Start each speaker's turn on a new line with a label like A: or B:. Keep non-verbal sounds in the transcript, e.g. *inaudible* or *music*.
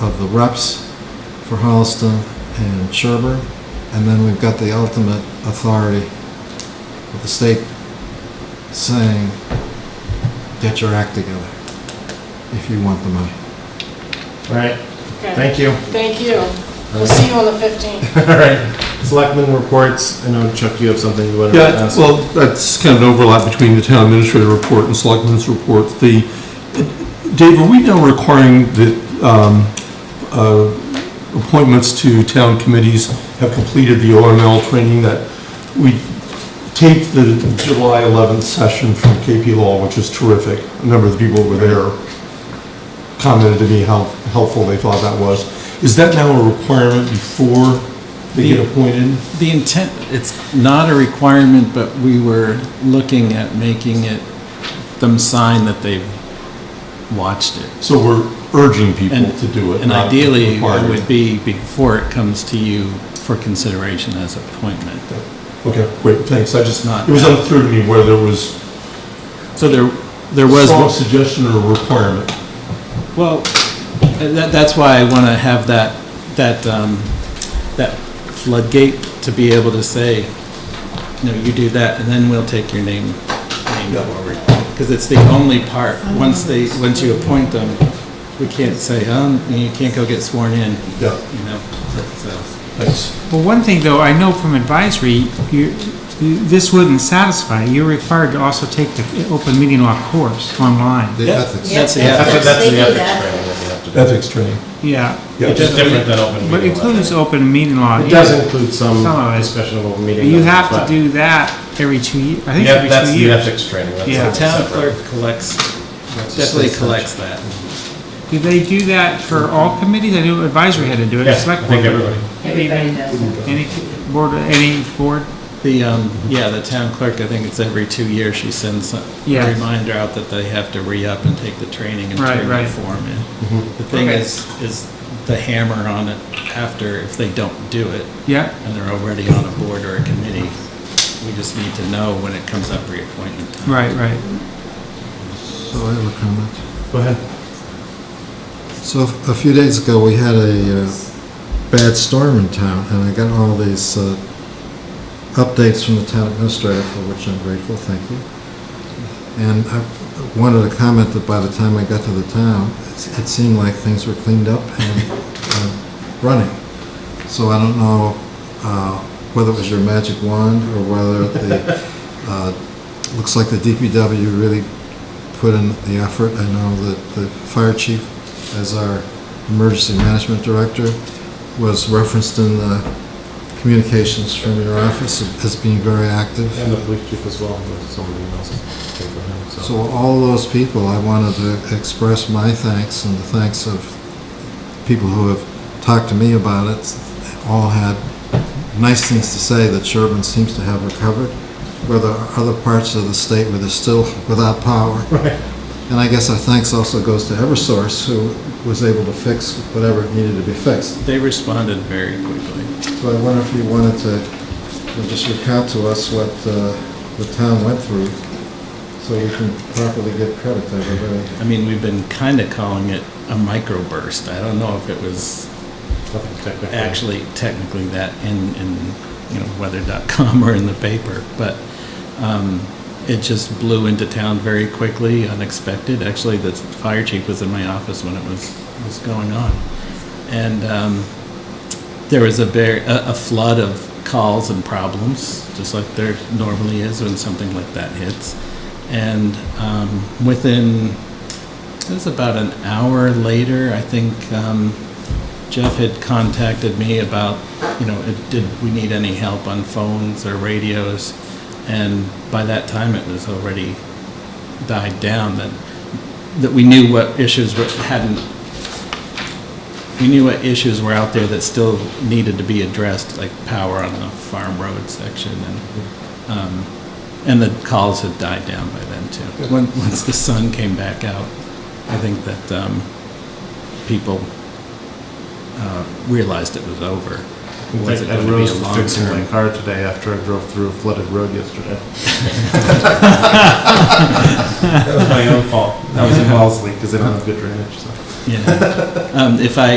A: of the reps for Holliston and Sherburne. And then we've got the ultimate authority with the state saying, get your act together if you want the money.
B: All right,
C: Okay,
B: thank you. *laughs*
C: thank you. We'll see you on the 15th.
B: All right, selectmen reports, I know Chuck, you have something you want to
D: Yeah,
B: ask.
D: well, that's kind of an overlap between the town administrator report and selectmen's report. The, Dave, are we now requiring that um, uh, appointments to town committees have completed the OML training that we taped the July 11th session from KP Law, which was terrific. A number of the people who were there commented to me how helpful they thought that was. Is that now a requirement before they get appointed?
E: The intent, it's not a requirement, but we were looking at making it, them sign that they've watched it.
D: So we're urging people
E: And-
D: to do it.
E: And
D: not
E: ideally, it
D: requiring
E: would be before it comes to you for consideration as appointment.
D: Okay, great, thanks, I just,
E: Not
D: it was
E: bad.
D: unclear to me whether there was
E: So there, there was.
D: strong suggestion or requirement.
E: Well, that, that's why I want to have that, that, um, that floodgate to be able to say, no, you do that, and then we'll take your name, name forward. Because it's the only part, once they, once you appoint them, we can't say, um, you can't go get sworn in,
D: Yeah,
E: you know, uh, so.
D: thanks.
F: Well, one thing though, I know from advisory, you, this wouldn't satisfy. You're required to also take the open meeting law course online.
A: The ethics.
E: That's the
C: Yeah.
B: That's what-
E: ethics.
B: that's
G: They
B: the
G: do
B: ethics
G: that.
B: training that you have to do.
D: Ethics training.
F: Yeah,
B: Which is different than open
F: but
B: meeting law.
F: includes open meeting law.
B: It does include some
F: Some of it.
B: discussion of open meeting.
F: You
B: laws,
F: have
B: but-
F: to do that every two years. I think
B: Yeah,
F: it's
B: that's
F: every two
B: the
F: years.
B: ethics training. that's
F: Yeah.
E: The
B: something
E: town
B: separate.
E: clerk collects, definitely collects that.
F: Do they do that for all committees? I knew advisory had to do it.
B: Yeah, I
F: Select
B: think
F: board.
B: everybody.
G: Everybody does it.
F: Any board, any board?
E: The, um, yeah, the town clerk, I think it's every two years she sends a
F: Yeah.
E: reminder out that they have to re-up and take the training and
F: Right,
E: turn the
F: right.
E: form in. The thing
F: Okay.
E: is, is the hammer on it after, if they don't do it,
F: Yeah,
E: and they're already on a board or a committee, we just need to know when it comes up reappointment time.
F: right, right.
A: So I have a comment.
B: Go ahead.
A: So a few days ago, we had a uh, bad storm in town, and I got all these uh, updates from the town administrator, for which I'm grateful, thank you. And I wanted to comment that by the time I got to the town, it it seemed like things were cleaned up and uh, running. So I don't know uh, whether it was your magic wand or whether the, uh, looks like the DPW really put in the effort. I know that the fire chief, as our emergency management director, was referenced in the communications from your office as being very active.
B: And the police chief as well, with somebody else. I think, for him,
A: So all those people, I wanted to express my thanks and the thanks of people who have talked to me about it. They All had nice things to say that Sherburne seems to have recovered, where there are other parts of the state where they're still without power.
B: Right.
A: And I guess our thanks also goes to Eversource, who was able to fix whatever needed to be fixed.
E: They responded very quickly.
A: So I wonder if you wanted to just recount to us what uh, the town went through, so we can properly give credit to everybody.
E: I mean, we've been kind of calling it a microburst. I don't know if it was
B: Nothing technical.
E: actually technically that in, in, you know, weather.com or in the paper, but um, it just blew into town very quickly, unexpected. Actually, the fire chief was in my office when it was, was going on. And um, there was a very, a a flood of calls and problems, just like there normally is when something like that hits. And um, within, it was about an hour later, I think, um, Jeff had contacted me about, you know, it- did we need any help on phones or radios? And by that time, it was already died down, that, that we knew what issues were- hadn't, we knew what issues were out there that still needed to be addressed, like power on the farm road section and, um, and the calls had died down by then too. When, once the sun came back out, I think that, um, people uh, realized it was over.
B: In
E: Was it
B: fact, I
E: going to be
B: rose
E: a
B: to
E: long
B: fixing my *laughs*
E: term?
B: car today after I drove through a flooded
E: *laughs*
B: road yesterday. That was my own fault. That was a false leak because they don't have good drainage, so.
E: *laughs* Yeah. Um, If I,